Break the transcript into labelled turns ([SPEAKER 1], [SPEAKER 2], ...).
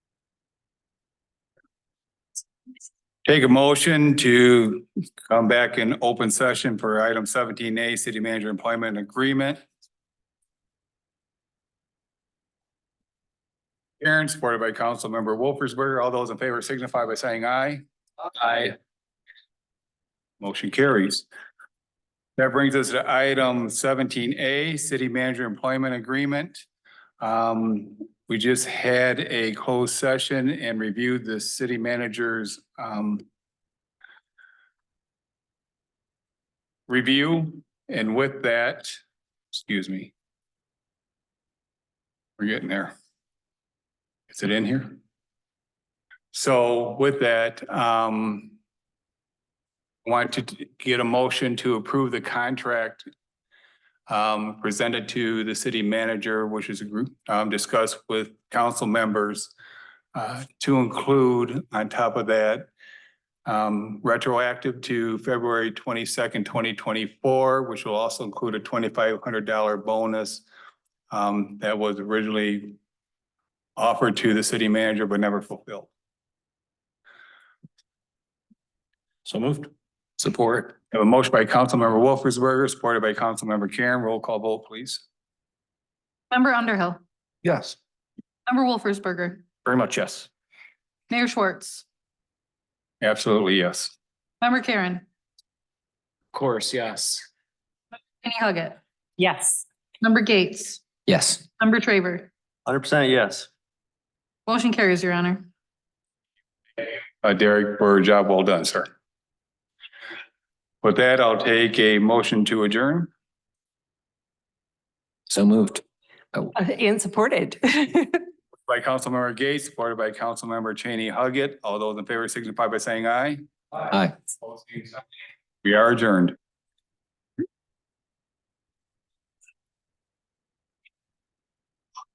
[SPEAKER 1] Take a motion to come back in open session for item seventeen A, city manager employment agreement. Karen, supported by council member Wolfersberger. All those in favor signify by saying aye. Aye. Motion carries. That brings us to item seventeen A, city manager employment agreement. Um, we just had a closed session and reviewed the city manager's, um, review, and with that, excuse me. We're getting there. Is it in here? So with that, um, want to get a motion to approve the contract um, presented to the city manager, which is a group, um, discussed with council members uh, to include on top of that um, retroactive to February twenty-second, twenty twenty-four, which will also include a twenty-five hundred dollar bonus um, that was originally offered to the city manager but never fulfilled. So moved. Support. Have a motion by Councilmember Wolfersberger, supported by Councilmember Karen. Roll call vote, please.
[SPEAKER 2] Member Underhill,
[SPEAKER 3] Yes.
[SPEAKER 2] member Wolfersberger,
[SPEAKER 3] Very much, yes.
[SPEAKER 2] Mayor Schwartz,
[SPEAKER 1] Absolutely, yes.
[SPEAKER 2] member Karen,
[SPEAKER 3] Of course, yes.
[SPEAKER 2] Kenny Huggett,
[SPEAKER 4] Yes.
[SPEAKER 2] member Gates,
[SPEAKER 3] Yes.
[SPEAKER 2] member Traver.
[SPEAKER 3] Hundred percent, yes.
[SPEAKER 2] Motion carries, your honor.
[SPEAKER 1] uh, Derek, for a job well done, sir. With that, I'll take a motion to adjourn.
[SPEAKER 3] So moved.
[SPEAKER 4] And supported.
[SPEAKER 1] By Councilmember Gates, supported by Councilmember Cheney Huggett. All those in favor signify by saying aye.
[SPEAKER 3] Aye.
[SPEAKER 1] We are adjourned.